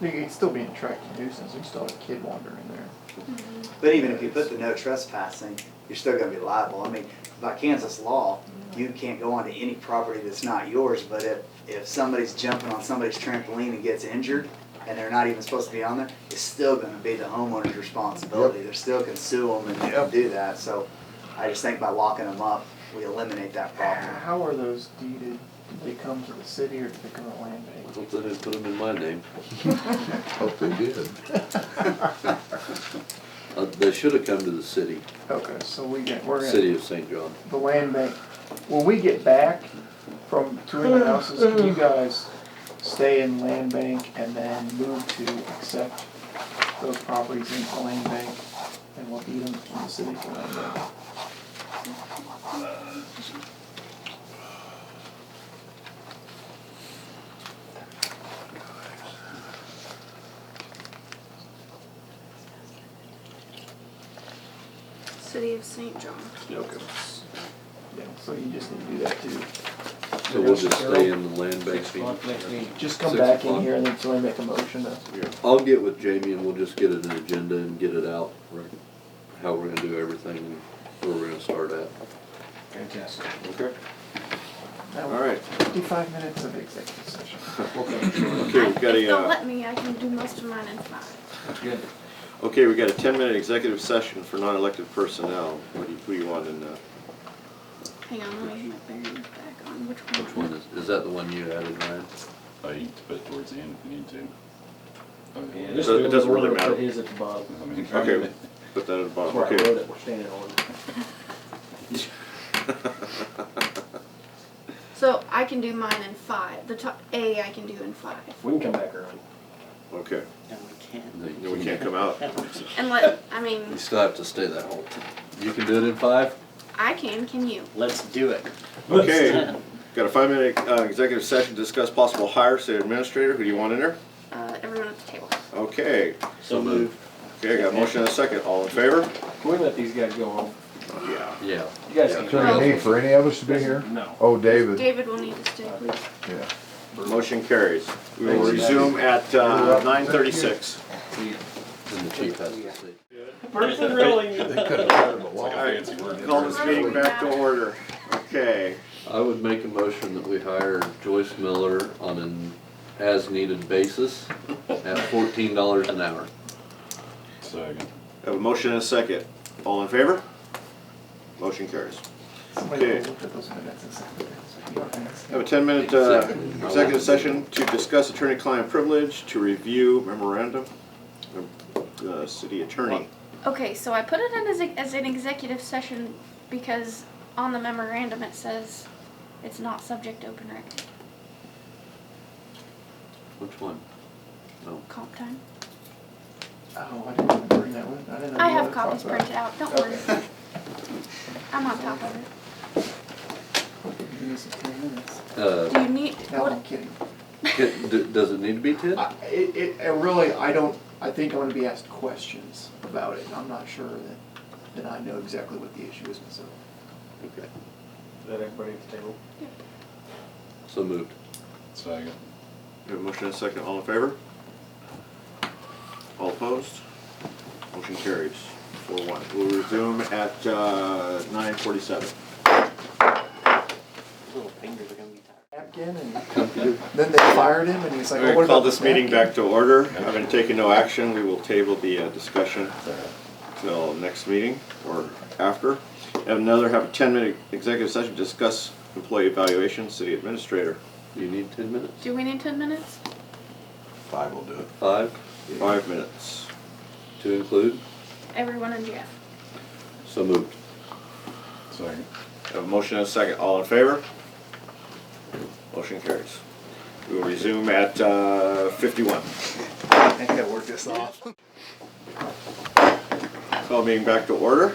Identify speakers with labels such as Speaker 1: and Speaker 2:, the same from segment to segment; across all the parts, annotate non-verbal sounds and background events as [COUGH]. Speaker 1: He'd still be an attractive nuisance, he'd still have a kid wandering there.
Speaker 2: But even if you put the no trespassing, you're still gonna be liable. I mean, by Kansas law, you can't go onto any property that's not yours, but if, if somebody's jumping on somebody's trampoline and gets injured, and they're not even supposed to be on there, it's still gonna be the homeowner's responsibility. They're still can sue them and they can
Speaker 1: Yep.
Speaker 2: do that, so I just think by locking them up, we eliminate that problem.
Speaker 1: How are those deeded? Did they come to the city or did they come to land
Speaker 3: I
Speaker 1: bank?
Speaker 3: hope they didn't put them in my [LAUGHS] name.
Speaker 4: Hope they did.
Speaker 3: Uh, They should have come to the city,
Speaker 1: Okay, so we get, we're gonna,
Speaker 3: city of St. John.
Speaker 1: the land bank, when we get back from touring the houses, can you guys stay in land bank and then move to accept those properties into land bank? And we'll deed them from the city to land bank.
Speaker 5: City of St. John, Kansas.
Speaker 1: Yeah, so you just need to do that too.
Speaker 3: So we'll just stay in the land bank. meeting.
Speaker 1: Just come
Speaker 3: Six
Speaker 1: back in
Speaker 3: o'clock.
Speaker 1: here and then somebody make a motion to.
Speaker 3: I'll get with Jamie and we'll just get an agenda and get it out, right, how we're gonna do everything, and where we're gonna start at.
Speaker 6: Fantastic.
Speaker 3: Okay. All right.
Speaker 1: Fifty-five minutes of executive session.
Speaker 6: Okay,
Speaker 7: Okay, we've
Speaker 5: If
Speaker 7: got a,
Speaker 5: they'll
Speaker 7: uh,
Speaker 5: let me, I can do most of mine in five.
Speaker 6: that's good.
Speaker 7: okay, we've got a ten-minute executive session for non-elected personnel. What do you, who do you want in, uh,
Speaker 5: Hang on, let me get my bearings back on. Which one?
Speaker 3: Which one is, is that the one you added, Ryan?
Speaker 8: I can put it towards the end if you need to.
Speaker 6: Yeah,
Speaker 7: It
Speaker 6: just
Speaker 7: doesn't-
Speaker 6: do
Speaker 7: it doesn't really
Speaker 6: order,
Speaker 7: matter.
Speaker 6: Put his at the bottom.
Speaker 8: I mean,
Speaker 7: okay, put that at the
Speaker 6: That's
Speaker 7: bottom,
Speaker 6: where I wrote
Speaker 7: okay.
Speaker 6: it, we're standing on it.
Speaker 5: So I can do mine in five. The top A I can do in five.
Speaker 6: We can come back early.
Speaker 7: Okay,
Speaker 9: No, we can't.
Speaker 7: no, we can't come out.
Speaker 5: And let, I mean,
Speaker 3: You still have to stay that whole time. You can do it in five?
Speaker 5: I can, can you?
Speaker 9: Let's do it.
Speaker 7: Okay, got a five-minute, uh, executive session to discuss possible hire, city administrator. Who do you want in there?
Speaker 5: Uh, everyone at the table.
Speaker 7: Okay,
Speaker 9: So move.
Speaker 7: okay, got a motion and a second. All in favor?
Speaker 6: Can we let these guys go home?
Speaker 7: Yeah.
Speaker 3: Yeah.
Speaker 6: You guys
Speaker 3: Yeah.
Speaker 6: can.
Speaker 4: Is there a need for any of us to be here?
Speaker 6: No.
Speaker 4: Oh, David,
Speaker 5: David will need to stay, please.
Speaker 4: yeah.
Speaker 7: Motion carries. We will resume at, uh, nine thirty-six.
Speaker 3: And the chief has to say.
Speaker 9: Person really.
Speaker 4: They could have let him
Speaker 8: Like a
Speaker 4: alone.
Speaker 8: fancy word.
Speaker 7: Call this meeting back to order. Okay.
Speaker 3: I would make a motion that we hire Joyce Miller on an as-needed basis at fourteen dollars an hour.
Speaker 8: Second.
Speaker 7: Have a motion and a second. All in favor? Motion carries.
Speaker 1: Somebody
Speaker 7: Okay.
Speaker 1: will look at those minutes and say, "You don't
Speaker 7: Have a
Speaker 1: understand."
Speaker 7: ten-minute uh, executive session to discuss attorney-client privilege, to review memorandum of the city attorney.
Speaker 5: Okay, so I put it in as, a, as an executive session because on the memorandum it says it's not subject to open rec
Speaker 3: Which one? No.
Speaker 5: comp time.
Speaker 1: Oh, I didn't even bring that one. I didn't know.
Speaker 5: I
Speaker 1: you
Speaker 5: have
Speaker 1: wanted to talk
Speaker 5: copies
Speaker 1: about it.
Speaker 5: printed out, don't worry.
Speaker 1: Uh, Okay.
Speaker 5: I'm on top of it.
Speaker 1: We'll give you these in 10 minutes.
Speaker 3: Uh,
Speaker 5: Do you need,
Speaker 1: No,
Speaker 5: what,
Speaker 1: I'm kidding.
Speaker 3: can- d- does it need to be ten?
Speaker 1: I, it, it, I really, I don't, I think I'm gonna be asked questions about it. I'm not sure that, that I know exactly what the issue is myself.
Speaker 3: Okay.
Speaker 6: Is that everybody at the table?
Speaker 3: So moved.
Speaker 8: Second.
Speaker 7: Have a motion and a second. All in favor? All opposed? Motion carries. Four one. We'll resume at uh, nine forty-seven.
Speaker 9: Little fingers are gonna be tired.
Speaker 1: Napkin and then they fired him and he's like,
Speaker 7: We're
Speaker 1: "Oh, what
Speaker 7: gonna call
Speaker 1: about
Speaker 7: this meeting
Speaker 1: napkin?"
Speaker 7: back to order. I've been taking no action. We will table the uh, discussion till next meeting or after. Have another, have a ten-minute executive session, to discuss employee evaluation, city administrator.
Speaker 3: You need ten minutes?
Speaker 5: do we need ten minutes?
Speaker 8: Five will do it.
Speaker 3: Five
Speaker 7: Five minutes.
Speaker 3: to include?
Speaker 5: Everyone in Jeff.
Speaker 3: So moved.
Speaker 8: Second.
Speaker 7: Have a motion and a second. All in favor? Motion carries. We will resume at uh, fifty-one.
Speaker 2: I think I worked this off.
Speaker 7: Call meeting back to order.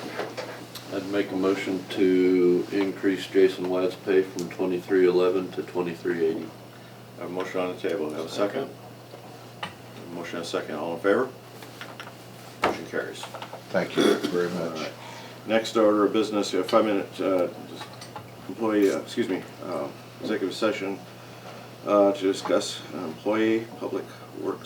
Speaker 3: I'd make a motion to increase Jason Wyatt's pay from twenty-three eleven to twenty-three eighty.
Speaker 7: Have a motion on the table. Have a second. Motion and a second. All in favor? Motion carries.
Speaker 4: Thank you very much.
Speaker 7: Next order of business, a five-minute uh, employee, uh, excuse me, uh, executive session uh, to discuss an employee public works